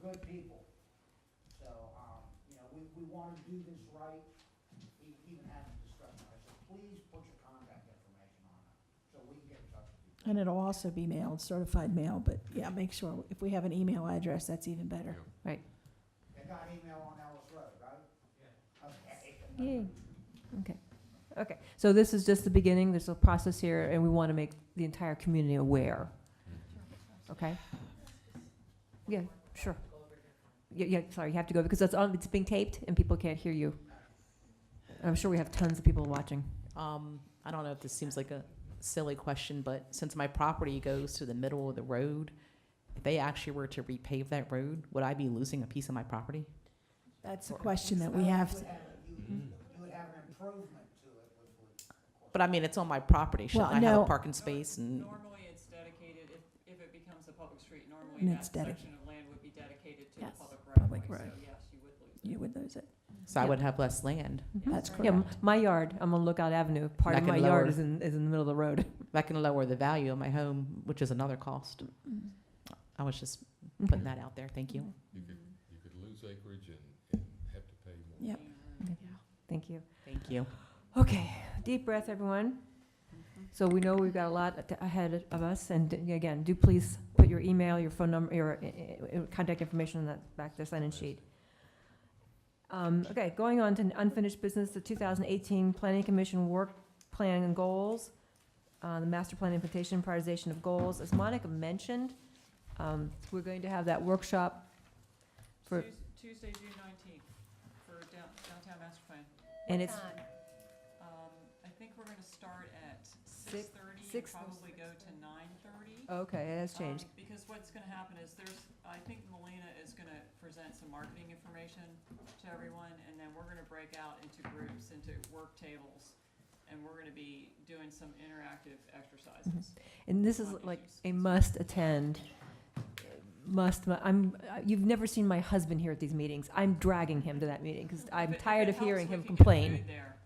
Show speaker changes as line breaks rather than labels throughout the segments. good people. So, um, you know, we, we want to do this right, e- even having discussion. I said, please put your contact information on it, so we can get in touch with you.
And it'll also be mailed, certified mail, but yeah, make sure, if we have an email address, that's even better.
Right.
They got email on Ellis Road, right? Yeah. Okay.
Yay. Okay. Okay. So this is just the beginning. There's a process here, and we want to make the entire community aware. Okay? Yeah, sure. Yeah, yeah, sorry, you have to go because that's on, it's being taped and people can't hear you. I'm sure we have tons of people watching.
Um, I don't know if this seems like a silly question, but since my property goes to the middle of the road, if they actually were to repave that road, would I be losing a piece of my property?
That's a question that we have,
You
to-
would have a- You you would have an improvement to it, which would.
But I mean, it's on my property. Shouldn't
Well,
I have
no.
a parking space and?
Normally, it's dedicated, if, if it becomes a public street, normally
And
that
it's dedic-
section of land would be dedicated to the
Yes,
public right
public
of way,
road.
so yes, you would lose.
you would lose it.
So I
Yeah.
would have less land.
That's
Yeah, m-
correct.
my yard, I'm on Lookout Avenue. Part of
Back
my
and
yard
lower.
is in, is in the middle of the road.
That can lower the value of my home, which is another cost.
Mm-hmm.
I was just
Okay.
putting that out there. Thank you.
You could, you could lose acreage and, and have to pay more.
Yep.
Thank you.
Thank you.
Okay, deep breath, everyone. So we know we've got a lot at- ahead of us, and d- again, do please put your email, your phone number, your uh, uh, contact information on that back there sign-in sheet. Um, Okay, going on to unfinished business, the 2018 Planning Commission Work Plan and Goals, uh, the Master Plan Implementation Prioritization of Goals. As Monica mentioned, um, we're going to have that workshop for-
Tues- Tuesday, June nineteenth, for down- downtown master plan.
And it's-
Um, I think we're gonna start at
Six-
six thirty and
six or
probably go to nine thirty.
Okay, it has changed.
Um, Because what's gonna happen is there's, I think Melina is gonna present some marketing information to everyone, and then we're gonna break out into groups, into work tables, and we're gonna be doing some interactive exercises.
And this is
Lobby
like
juice.
a must attend, Uh, must, mu- I'm, uh, you've never seen my husband here at these meetings. I'm dragging him to that meeting because I'm
If it- if
tired
it
of hearing him
helps, we can get
complain.
food there,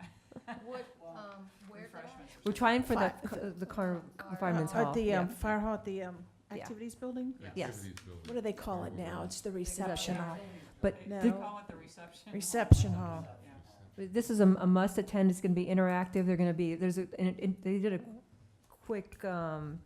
What, um, where did I?
refreshments or
We're trying for the,
Fi-
the- the car- fireman's
At
hall.
the,
yeah.
um, fire hall at the, um,
Yeah.
activities building?
Yes.
Activities building.
What do they call it now? It's the reception hall.
But
something. They- They
No.
call it the reception. hall.
Reception hall.
Yeah.
this is a, a must attend. It's gonna be interactive. They're gonna be, there's a, and, and they did a quick, um,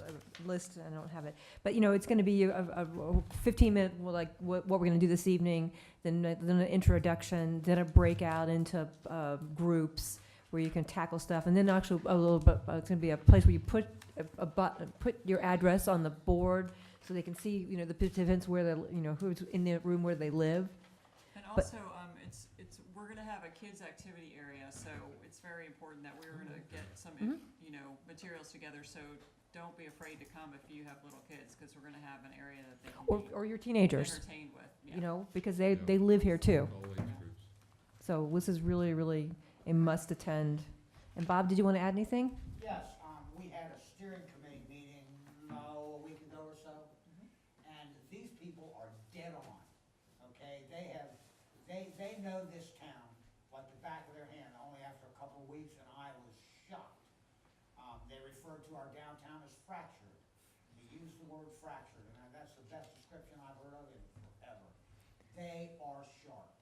uh, list, I don't have it, but you know, it's gonna be a, a a fifteen minute, well, like, what, what we're gonna do this evening, then, a- then an introduction, then a breakout into, uh, groups where you can tackle stuff, and then actually a little bit, uh, it's gonna be a place where you put a, a but, put your address on the board so they can see, you know, the participants where they're, you know, who's in the room where they live.
And
But-
also, um, it's, it's, we're gonna have a kids' activity area, so it's very important that we're gonna get some,
Mhm.
Mm-hmm.
you know, materials together, so don't be afraid to come if you have little kids, cause we're gonna have an area that they
Or,
can
or your
be
teenagers,
entertained with, yeah.
you know, because they,
Yeah.
they live here too.
All age groups.
So this is really, really a must attend. And Bob, did you want to add anything?
Yes, um, we had a steering committee meeting, oh, a week ago or so, and these people are dead on, okay? They have, they, they know this town like the back of their hand, only after a couple of weeks, and I was shocked. Um, they referred to our downtown as fractured, they used the word fractured, and that's the best description I've heard of it forever. They are sharp,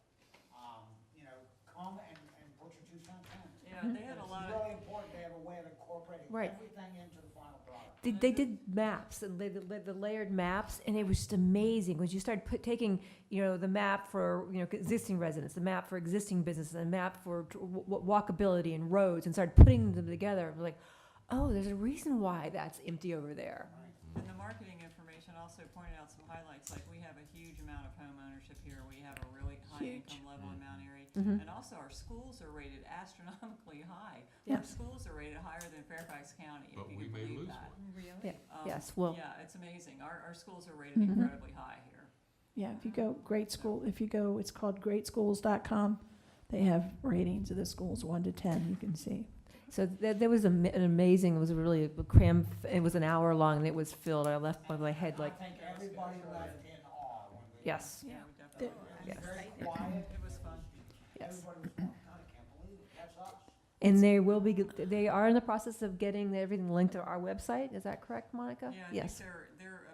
um, you know, come and, and put your two cents in.
Yeah, they had a lot
It's
of,
really important to have a way of incorporating
Right.
everything into the final product.
They, they did maps and they, they- the layered maps, and it was just amazing. Once you start put, taking, you know, the map for you know existing residents, the map for existing businesses, the map for tr- w- w- walkability and roads, and start putting them together, it was like, oh, there's a reason why that's empty over there.
and the marketing information also pointed out some highlights, like we have a huge amount of home ownership here, we have a really high
Huge.
income level in Mount Airy.
Mhm.
And also, our schools are rated astronomically high.
Yeah.
Our schools are rated higher than Fairfax County, if
But
you
we
can
may
believe
lose
that.
one.
Really?
Um,
Yes, well-
Yeah, it's amazing. Our, our schools are rated
Mhm.
Mm-hmm.
incredibly high here.
Yeah, if you go great school, if you go, it's called greatschools.com. They have ratings of the schools, one to 10, you can see.
So there, there was a, ma- an amazing, it was a really cram, it was an hour long and it was filled. I left my, my head like,
I think everybody left in awe when we.
yes.
Yeah.
we definitely.
It
Yes.
was very quiet.
It was fun.
Yes.
Everybody was going, God, I can't believe it, that's us.
And they will be, they are in the process of getting everything linked to our website. Is that correct, Monica?
Yeah, I think
Yes.
they're, uh, they're